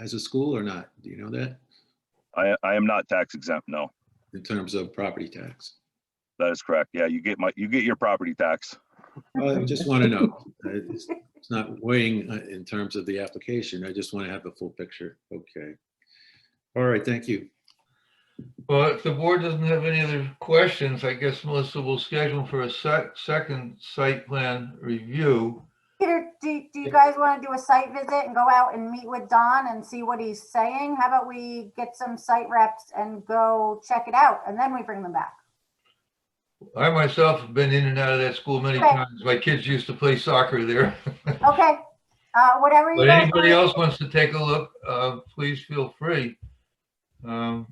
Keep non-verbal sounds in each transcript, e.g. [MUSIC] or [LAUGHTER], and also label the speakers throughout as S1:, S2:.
S1: as a school or not? Do you know that
S2: I, I am not tax exempt, no.
S1: in terms of property tax?
S2: That is correct. Yeah, you get my, you get your property tax.
S1: I just want to know.
S3: [LAUGHS]
S1: It's it's not weighing uh, in terms of the application. I just want to have the full picture. Okay. All right, thank you.
S4: Well, if the board doesn't have any other questions, I guess Melissa will schedule for a sec- second site plan review.
S3: Peter, do, do you guys want to do a site visit and go out and meet with Don and see what he's saying? How about we get some site reps and go check it out and then we bring them back?
S4: I myself have been in and out of that school many
S3: Okay.
S4: times. My kids used to play soccer there.
S3: Okay, uh, whatever you
S4: But
S3: guys.
S4: anybody
S3: want.
S4: else wants to take a look, uh, please feel free. Um,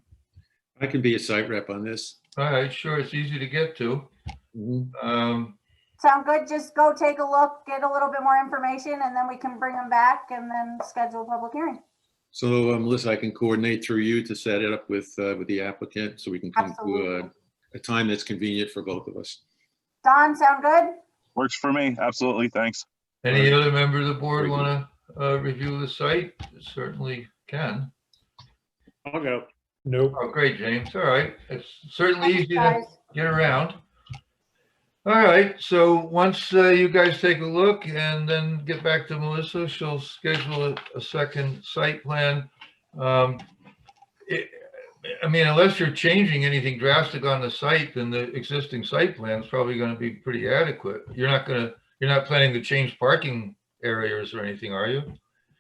S1: I can be a site rep on this.
S4: all right, sure, it's easy to get to.
S1: Mhm.
S4: Um,
S3: Sound good? Just go take a look, get a little bit more information and then we can bring them back and then schedule a public hearing.
S1: So uh, Melissa, I can coordinate through you to set it up with, uh, with the applicant so we can come to a,
S3: Absolutely.
S1: a time that's convenient for both of us.
S3: Don, sound good?
S2: Works for me. Absolutely. Thanks.
S4: any other member of the board
S1: Very good.
S4: want to, uh, review the site? Certainly can.
S5: I'll go. Nope.
S4: Oh, great, James. All right. It's certainly
S3: Thanks,
S4: easy to
S3: guys.
S4: get around. All right, so once uh, you guys take a look and then get back to Melissa, she'll schedule a- a second site plan. Um, it- I mean, unless you're changing anything drastic on the site, then the existing site plan is probably going to be pretty adequate. You're not going to, you're not planning to change parking areas or anything, are you?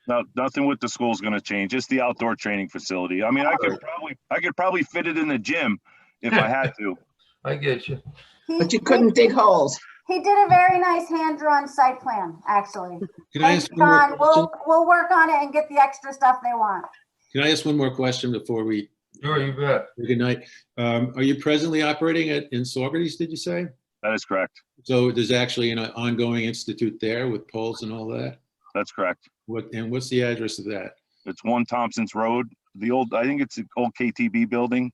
S2: No, nothing with the school's gonna change. It's the outdoor training facility. I mean, I could probably, I could probably fit it in the gym if I had
S5: [LAUGHS]
S2: to.
S4: I get you.
S3: He-
S6: But you couldn't dig holes.
S3: He did a very nice hand-drawn site plan, actually.
S1: Can I
S3: Thanks,
S1: ask one more
S3: Don.
S1: question?
S3: We'll, we'll work on it and get the extra stuff they want.
S1: Can I ask one more question before we,
S4: Sure, you bet.
S1: good night? Um, Are you presently operating at, in Saugerties, did you say?
S2: That is correct.
S1: So there's actually an ongoing institute there with poles and all that?
S2: That's correct.
S1: What, and what's the address of that?
S2: It's one Thompson's Road, the old, I think it's the old KTB building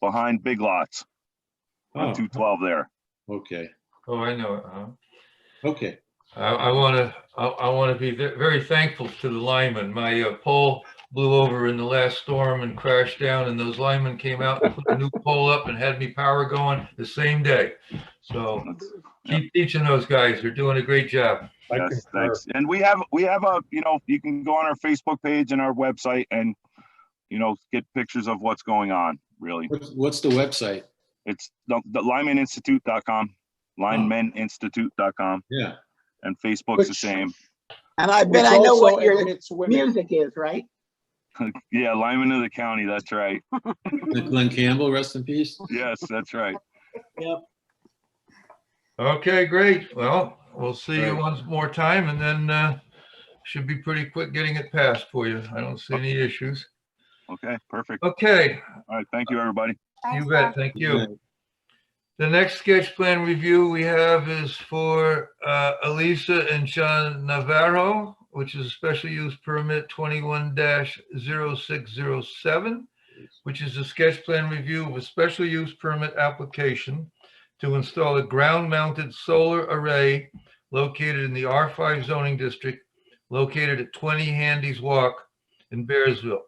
S2: behind Big Lots
S1: Oh,
S2: on two twelve there.
S1: okay,
S4: Oh, I know it, huh?
S1: okay.
S4: I, I want to, I, I want to be ve- very thankful to the linemen. My uh, pole blew over in the last storm and crashed down and those linemen came out and put a new pole up and had me power going the same day. So keep teaching those guys. They're doing a great job.
S5: I
S2: Yes,
S5: concur.
S2: thanks. And we have, we have a, you know, you can go on our Facebook page and our website and, you know, get pictures of what's going on, really.
S1: What's- What's the website?
S2: It's the, the linemeninstitute.com, linemeninstitute.com,
S1: Yeah,
S2: and Facebook's the
S5: Which-
S2: same. [LAUGHS]
S6: And I
S5: Which
S6: bet I know
S5: also
S6: what your
S5: admits women.
S6: music is, right?
S2: Yeah, lineman of the county, that's right.
S1: Glenn Campbell, rest in peace.
S2: Yes, that's right.
S4: Okay, great. Well, we'll see you
S1: Right.
S4: once more time and then, uh, should be pretty quick getting it passed for you. I don't see any issues.
S2: Okay, perfect.
S4: Okay,
S2: All right, thank you, everybody.
S3: Thanks,
S4: you
S3: Don.
S4: bet. Thank you. The next sketch plan review we have is for uh, Elisa and Sean Navarro, which is a special use permit 21-0607, which is a sketch plan review of a special use permit application to install a ground-mounted solar array located in the R5 zoning district, located at 20 Handy's Walk in Bearsville.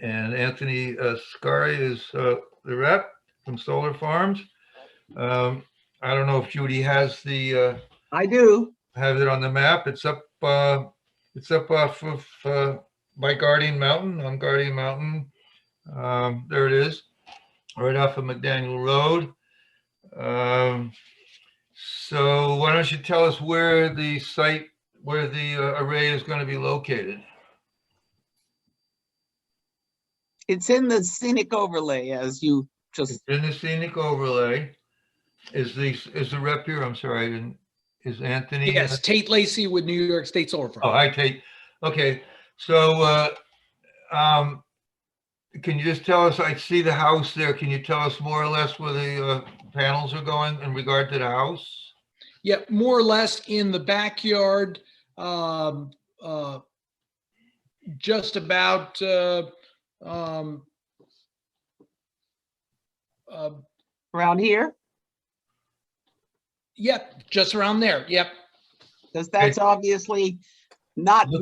S4: And Anthony uh, Scari is uh, the rep from Solar Farms. Um, I don't know if Judy has the, uh,
S6: I do.
S4: has it on the map. It's up, uh, it's up off of, uh, by Guardian Mountain, on Guardian Mountain. Um, there it is, right off of McDaniel Road. Um, so why don't you tell us where the site, where the uh, array is going to be located?
S6: It's in the scenic overlay as you just,
S4: It's in the scenic overlay. Is the, is the rep here? I'm sorry, I didn't, is Anthony? uh,
S7: Yes, Tate Lacy with New York State Solar
S4: Oh,
S7: Farm.
S4: hi, Kate. Okay, so, uh, um, can you just tell us, I see the house there. Can you tell us more or less where the, uh, panels are going in regard to the house?
S7: Yeah, more or less in the backyard, um, uh, just about, uh, um, uh,
S6: around here,
S7: yep, just around there. Yep.
S6: because that's obviously not